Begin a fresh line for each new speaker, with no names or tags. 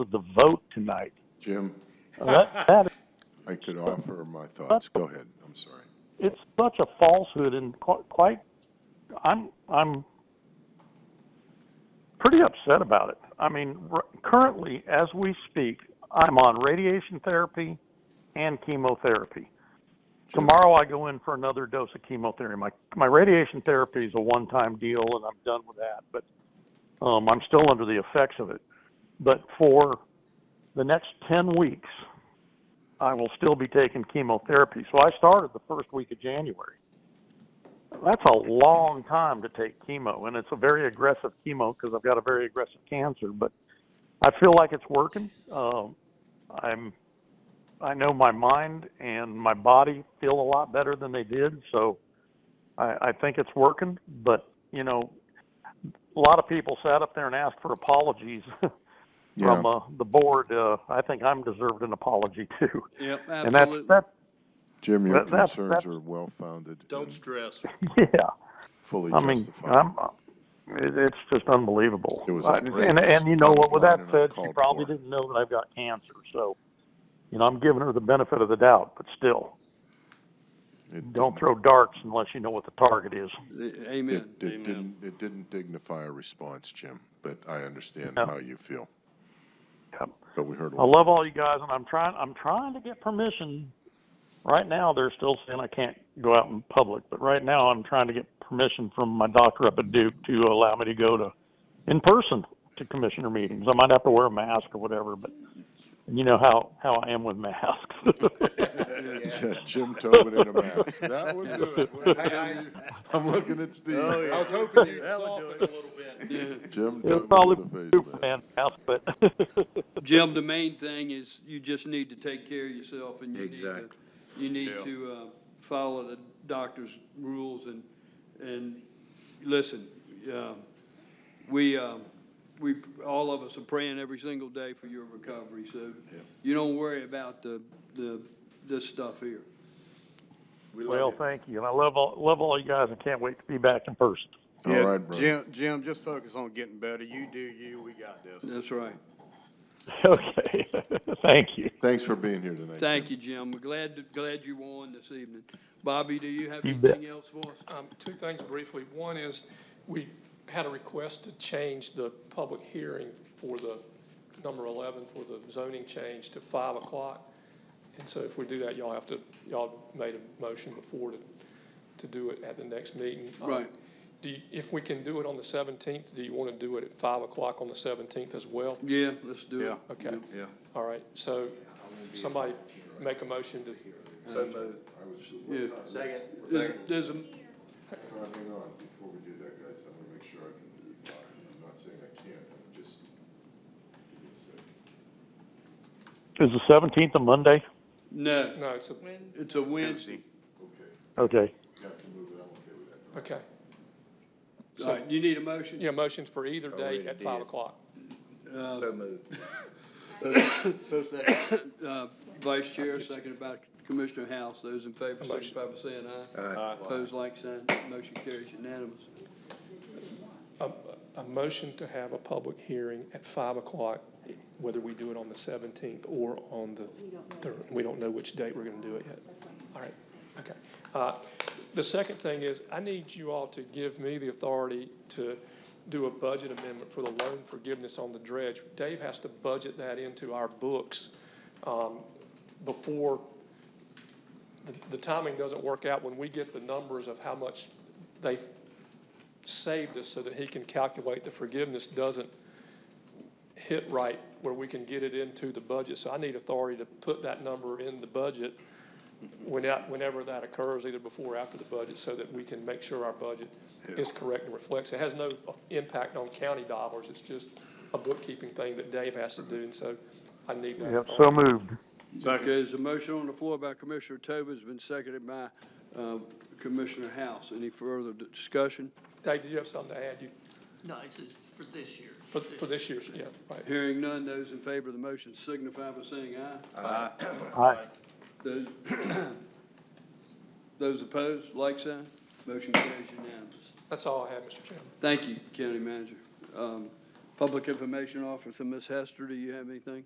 of the vote tonight.
Jim,
That, that is
I could offer my thoughts. Go ahead. I'm sorry.
it's such a falsehood and qu- quite i'm i'm pretty upset about it i mean r- currently as we speak i'm on radiation therapy and chemotherapy tomorrow i go in for another dose of chemotherapy my my radiation therapy is a one time deal and i'm done with that but um i'm still under the effects of it but for the next 10 weeks I will still be taking chemotherapy. So I started the first week of January. That's a long time to take chemo, and it's a very aggressive chemo because I've got a very aggressive cancer. But I feel like it's working. Um, I'm, I know my mind and my body feel a lot better than they did, so I, I think it's working. But you know, a lot of people sat up there and asked for apologies
Yeah,
from uh, the board. Uh, I think I'm deserved an apology too,
Yep,
and that's
absolutely.
that's
Jim, your
That, that's
concerns
that's
are well-founded
Don't
and
stress.
yeah.
fully
I mean,
justified.
I'm. uh, It, it's just unbelievable.
It was
I, and
outrageous,
and you know what? With
unapplied
that
and
said, she
uncalled
probably
for.
didn't know that I've got cancer. So you know, I'm giving her the benefit of the doubt, but still,
It
don't
didn't,
throw darts unless you know what the target is.
Amen,
it, it
amen.
didn't, it didn't dignify a response, Jim, but I understand
Yeah.
how you feel.
Yeah.
But we heard a
I
lot.
love all you guys, and I'm trying. I'm trying to get permission. Right now, they're still saying I can't go out in public, but right now, I'm trying to get permission from my doctor up at Duke to allow me to go to in person to commissioner meetings. I might have to wear a mask or whatever, but you know how how I am with masks.
Jim Tobin in a mask. That would do it. Oh, I'm looking at Steve.
I was hoping you'd soften a little bit.
Jim
It'll
Tobin
probably
with a
be
face
Superman
mask.
mask, but
Jim, the main thing is you just need to take care of yourself and you need to,
Exactly.
you need
Yeah.
to, uh, follow the doctor's rules and, and listen, uh, we, uh, we, all of us are praying every single day for your recovery, so you don't worry about the, the, this stuff here.
We
well,
love
thank you, and I love all love all you guys, and can't wait to be back in person.
All
Yeah,
right, brother.
Jim, Jim, just focus on getting better. You do you, we got this.
That's right.
Okay, thank you.
Thanks for being here tonight, Jim.
Thank you, Jim. We're glad, glad you won this evening. Bobby, do you have
You bet.
anything else for us?
Um, Two things briefly. One is, we had a request to change the public hearing for the number 11, for the zoning change to 5 o'clock. And so if we do that, y'all have to, y'all made a motion before to, to do it at the next meeting. Um,
Right.
Do, you- if we can do it on the 17th, do you want to do it at 5 o'clock on the 17th as well?
Yeah, let's do it.
Yeah.
Okay,
Yeah.
all right. So somebody make a motion to,
So moved.
Yeah.
Second.
There's, there's a,
Uh, Hang on, before we do that, guys, I'm gonna make sure I can be fine. I'm not saying I can't, I'm just, give me a second.
Is the seventeenth a Monday?
no,
no, it's a,
it's a Wednesday.
Okay,
Okay.
you have to move it, I'm okay with that.
okay.
All right, you need a motion?
Yeah, motions for either date
Already
at five
did.
o'clock.
So moved.
So second.
Uh, Vice Chair, seconded by Commissioner House. Those in favor,
Motion.
signify by saying aye.
Aye.
Opposed, like sign. Motion carries unanimous.
A, a motion to have a public hearing at five o'clock, whether we do it on the seventeenth or on the third. We don't know which date we're gonna do it yet. All right, okay. Uh, the second thing is, I need you all to give me the authority to do a budget amendment for the loan forgiveness on the dredge. Dave has to budget that into our books, um, before the, the timing doesn't work out when we get the numbers of how much they have saved us so that he can calculate the forgiveness doesn't hit right where we can get it into the budget. So I need authority to put that number in the budget when that- whenever that occurs, either before or after the budget, so that we can make sure our budget is correct and reflects. It has no uh, impact on county dollars. It's just a bookkeeping thing that Dave has to do, and so I need that
Yep.
authority.
So moved.
Okay, there's a motion on the floor by Commissioner Tobin, has been seconded by uh, Commissioner House. Any further discussion?
Dave, do you have something to add? You,
No, this is for this year.
for, for this year's, yeah, right.
Hearing none, those in favor of the motion signify by saying aye.
Aye.
Those those opposed, like sign. Motion carries unanimous.
That's all I have, Mr. Chairman.
Thank you, County Manager. Um, Public Information Officer, Ms. Hester, do you have anything?